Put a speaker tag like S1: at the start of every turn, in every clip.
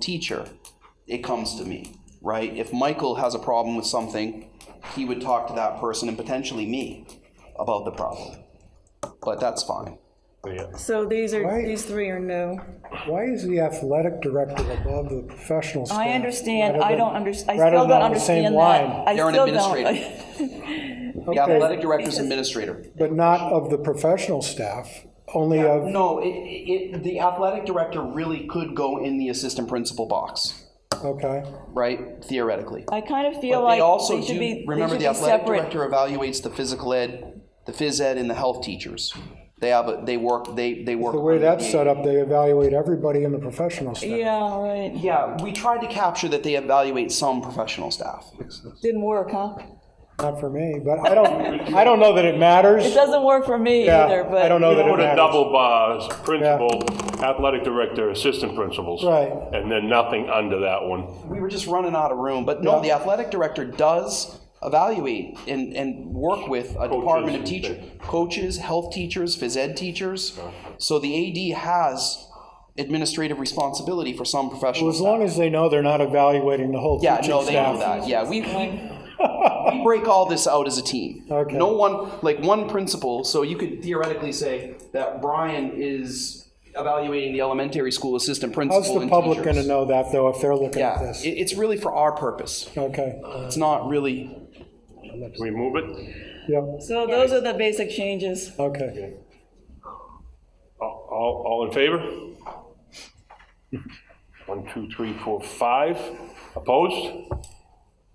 S1: teacher, it comes to me, right? If Michael has a problem with something, he would talk to that person and potentially me about the problem. But that's fine.
S2: So these are,
S3: Right.
S2: these three are new.
S3: Why is the athletic director above the professional staff?
S4: I understand,
S3: rather
S4: I
S3: than-
S4: don't under, I
S3: rather
S4: still
S3: than
S4: don't
S3: on the same
S4: understand that.
S3: line?
S4: I
S1: They're an
S4: still don't.
S1: administrator. The
S3: Okay.
S1: athletic director's administrator.
S3: But not of the professional staff, only of,
S1: No, it, it, the athletic director really could go in the assistant principal box,
S3: okay,
S1: right? Theoretically.
S4: I kind of feel
S1: But
S4: like
S1: they also
S4: they should
S1: do-
S4: be, they
S1: remember
S4: should
S1: the
S4: be
S1: athletic
S4: separate.
S1: director evaluates the physical ed, the phys ed and the health teachers. They have, a- they work, they, they work.
S3: the way
S1: under
S3: that's
S1: the-
S3: set up, they evaluate everybody in the professional staff.
S4: Yeah, right.
S1: Yeah, we tried to capture that they evaluate some professional staff.
S4: Didn't work, huh?
S3: Not for me, but I don't, I don't know that it matters.
S4: It doesn't work for me
S3: Yeah,
S4: either, but.
S3: I don't know that it
S5: Put a
S3: matters.
S5: double bars, principal, athletic director, assistant principals.
S3: Right.
S5: And then nothing under that one.
S1: We were just running out of room, but no, the athletic director does evaluate and, and work with a department of
S5: you
S1: teacher,
S5: think.
S1: coaches, health teachers, phys ed teachers. So the AD has administrative responsibility for some professional
S3: As long
S1: staff.
S3: as they know they're not evaluating the whole
S1: Yeah,
S3: teaching
S1: no, they know
S3: staff.
S1: that. Yeah, we, we, we break all this out as a team.
S3: Okay.
S1: No one, like one principal, so you could theoretically say that Brian is evaluating the elementary school assistant principal
S3: How's the
S1: and
S3: public
S1: teachers.
S3: gonna know that, though, if they're looking at
S1: Yeah,
S3: this?
S1: it, it's really for our purpose.
S3: Okay,
S1: It's not really,
S5: Can we move it?
S3: yep,
S4: So those are the basic changes.
S3: okay.
S5: All, all all in favor? One, two, three, four, five. Opposed?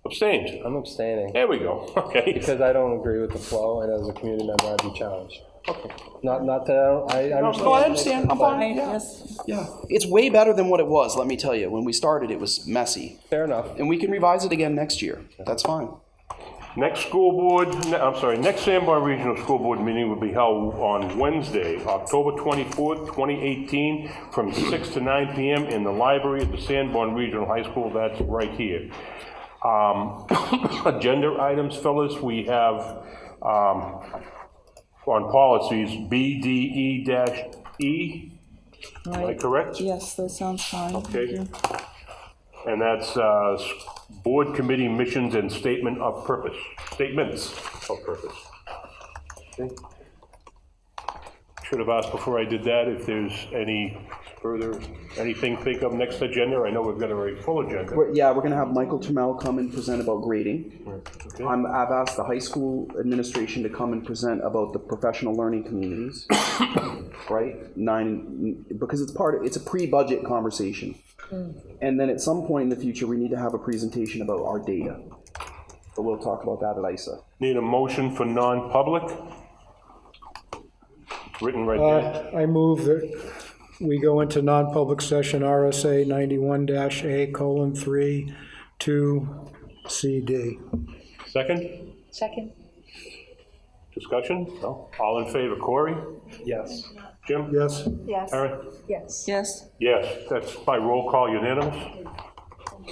S5: Abstained?
S6: I'm abstaining
S5: There we go, okay.
S6: because I don't agree with the flow, and as a community member, I'd be challenged. Not, not that I don't, I, I
S1: no, I
S6: understand.
S1: understand, I'm
S4: Right,
S1: fine, yeah.
S4: yes.
S1: Yeah, it's way better than what it was, let me tell you. When we started, it was messy.
S6: Fair enough.
S1: And we can revise it again next year, that's fine.
S5: Next school board, ne- I'm sorry, next Sanborn Regional School Board meeting will be held on Wednesday, October 24th, 2018, from 6 to 9 PM in the library at the Sanborn Regional High School, that's right here. Um, Agenda items, fellas, we have um, on policies, E, BDE-E, am I
S4: Right.
S5: correct?
S4: Yes, that sounds fine.
S5: Okay.
S4: Thank you.
S5: And that's uh, s- Board Committee Missions and Statement of Purpose, Statements of Purpose. Okay. Should have asked before I did that if there's any further, anything think of next agenda. I know we've got a very full agenda.
S1: We're- Yeah, we're gonna have Michael Trammell come and present about grading. I'm, I've asked the high school administration to come and present about the professional learning communities. Right, nine, because it's part, of it's a pre-budget conversation. And then at some point in the future, we need to have a presentation about our data. But we'll talk about that at ISA.
S5: Need a motion for non-public? Written right there.
S3: Uh, I move that we go into non-public session RSA 91-A colon 3, 2, CD.
S5: Second,
S7: Second.
S5: discussion? No? All in favor, Corey?
S6: Yes.
S5: Jim?
S3: Yes?
S7: Yes.
S5: Aaron?
S7: Yes.
S4: Yes.
S5: Yes, that's by roll call unanimous.